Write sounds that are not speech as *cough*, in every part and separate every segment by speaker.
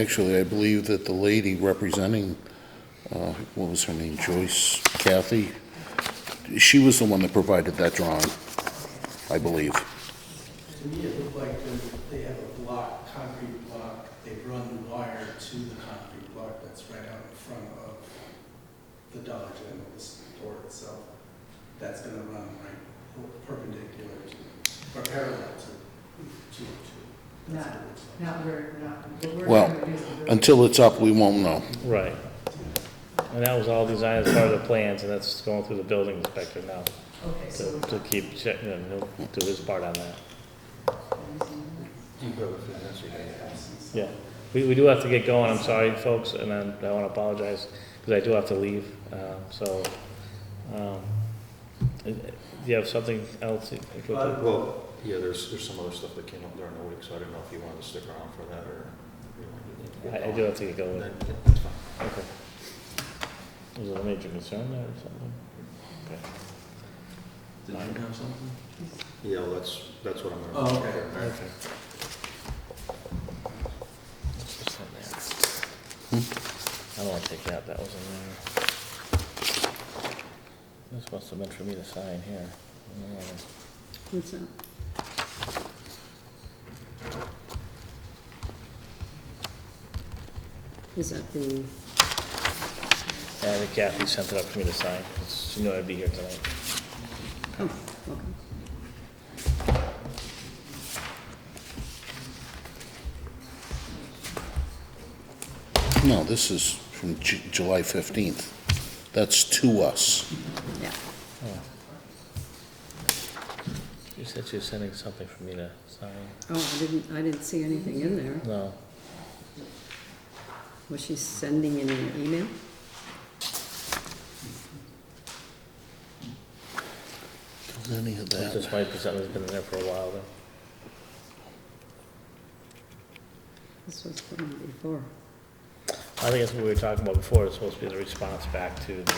Speaker 1: Actually, I believe that the lady representing, uh, what was her name, Joyce Kathy, she was the one that provided that drawing, I believe.
Speaker 2: To me, it looked like they- they have a block, concrete block, they run the wire to the concrete block that's right out in front of the Dollar General, the store itself. That's gonna run right perpendicular to, or parallel to, to, to. That's what it looks like.
Speaker 3: Not where, not, the word.
Speaker 1: Well, Until it's up, we won't know.
Speaker 4: Right. And that was all designed as part of the plans, and that's going through the building inspector now,
Speaker 3: Okay, so.
Speaker 4: to, to keep checking, and he'll do his part on that. Yeah, we, we do have to get going, I'm sorry, folks, and I, I wanna apologize, because I do have to leave, um, so, um, do you have something else? you- you could-
Speaker 2: Uh,
Speaker 5: Well, yeah, there's, there's some other stuff that came up during the week, so I didn't know if you wanted to stick around for that or. if you wanted to get
Speaker 4: I, I do have to get
Speaker 5: going.
Speaker 4: going,
Speaker 5: Then, yeah, that's fine.
Speaker 4: okay. Is there a major concern there or something?
Speaker 2: Did you have something?
Speaker 5: Yeah, well, that's, that's what I'm gonna.
Speaker 2: Oh, okay.
Speaker 4: Okay. That's what's in there. Hmm? I don't wanna take that, that was in there. This must have been for me to sign here. Yeah.
Speaker 6: What's that? Is that the,
Speaker 4: And I think Kathy sent it up for me to sign, 'cause she knew I'd be here tonight.
Speaker 6: oh, okay.
Speaker 1: No, this is from Ju- July 15th. That's to us.
Speaker 6: Yeah,
Speaker 4: You said she was sending something for me to sign.
Speaker 6: oh, I didn't, I didn't see anything in there.
Speaker 4: No,
Speaker 6: Was she sending in an email?
Speaker 1: Any of that.
Speaker 4: this might be something that's been in there for a while then.
Speaker 6: This was from before.
Speaker 4: I think that's what we were talking about before, it's supposed to be the response back to the,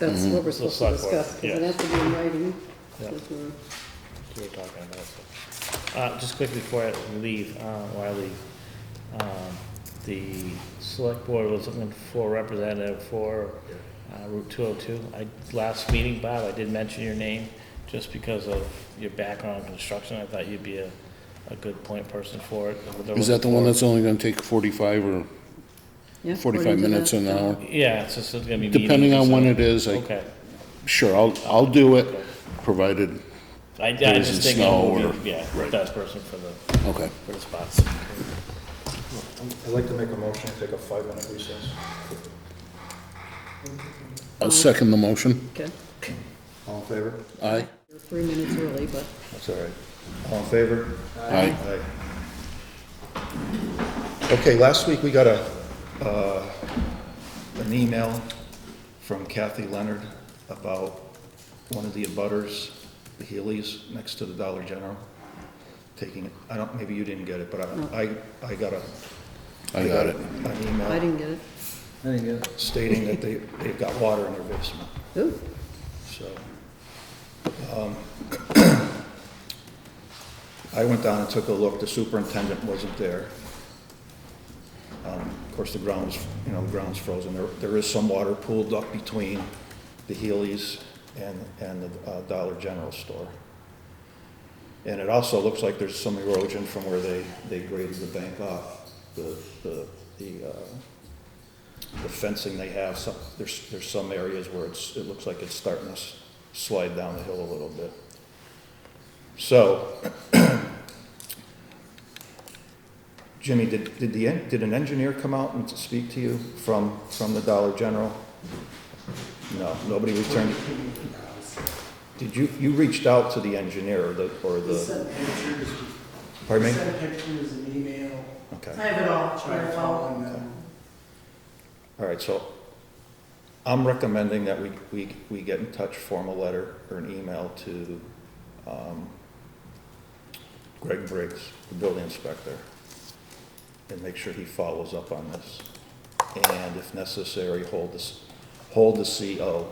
Speaker 6: That's
Speaker 1: Mm-hmm.
Speaker 6: what we're supposed to
Speaker 4: select board,
Speaker 6: discuss, because it
Speaker 4: yeah.
Speaker 6: has to be in writing.
Speaker 4: Yeah.
Speaker 6: because we're-
Speaker 4: we were talking about it. Uh, just quickly before I leave, uh, or I leave, um, the select board was looking for a representative for uh, Route two oh two. I, last meeting, Bob, I did mention your name, just because of your background in construction, I thought you'd be a, a good point person for it.
Speaker 1: Is that the one that's only going to take 45 or
Speaker 6: yeah,
Speaker 1: 45
Speaker 6: according to
Speaker 1: minutes
Speaker 6: that,
Speaker 1: an
Speaker 6: uh,
Speaker 1: hour?
Speaker 4: Yeah, it's just, it's gonna be meetings.
Speaker 1: Depending on
Speaker 4: so-
Speaker 1: when it is, I,
Speaker 4: Okay.
Speaker 1: sure, I'll, I'll do it, provided,
Speaker 4: I, I
Speaker 1: There
Speaker 4: just
Speaker 1: isn't
Speaker 4: think I'm
Speaker 1: snow
Speaker 4: gonna be,
Speaker 1: or-
Speaker 4: yeah,
Speaker 1: right.
Speaker 4: best person for the,
Speaker 1: okay.
Speaker 4: for the spots.
Speaker 5: I'd like to make a motion, to take a five-minute recess.
Speaker 1: I'll second the motion.
Speaker 6: Okay,
Speaker 5: All in favor?
Speaker 1: Aye.
Speaker 6: you're three minutes early, but
Speaker 5: That's all right. All in favor?
Speaker 1: Aye.
Speaker 5: Aye. Okay, last week we got a, uh, an email from Kathy Leonard about one of the abutters, the Healy's, next to the Dollar General, taking, I don't, maybe you didn't get it, but I, I I got a.
Speaker 1: I got it.
Speaker 5: An
Speaker 6: I
Speaker 5: email
Speaker 6: didn't get it.
Speaker 5: stating that they, they've got water in their basement.
Speaker 6: Ooh,
Speaker 5: So, um, I went down and took a look, the superintendent wasn't there. Um, Of course, the ground was, you know, the ground's frozen, there, there is some water pooled up between the Healy's and, and the uh, Dollar General store. And it also looks like there's some erosion from where they, they graded the bank off, the, the, the, uh, the fencing they have, some, there's, there's some areas where it's, it looks like it's starting to s- slide down the hill a little bit. So, *clears throat* Jimmy, did, did the, en- did an engineer come out and to speak to you from, from the Dollar General? No, nobody returned. Did you, you reached out to the engineer or the, or
Speaker 2: They
Speaker 5: the,
Speaker 2: sent pictures,
Speaker 5: Uh, pardon
Speaker 2: they
Speaker 5: me?
Speaker 2: sent pictures and email,
Speaker 5: Okay.
Speaker 3: I have it all, I have
Speaker 2: tried
Speaker 3: it all.
Speaker 2: following them.
Speaker 5: All right, so I'm recommending that we, we, we get in touch, form a letter or an email to um, Greg Briggs, the building inspector, and make sure he follows up on this. And if necessary, hold this, hold the CO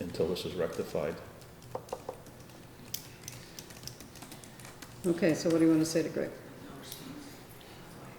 Speaker 5: until this is rectified.
Speaker 6: okay, so what do you want to say to Greg?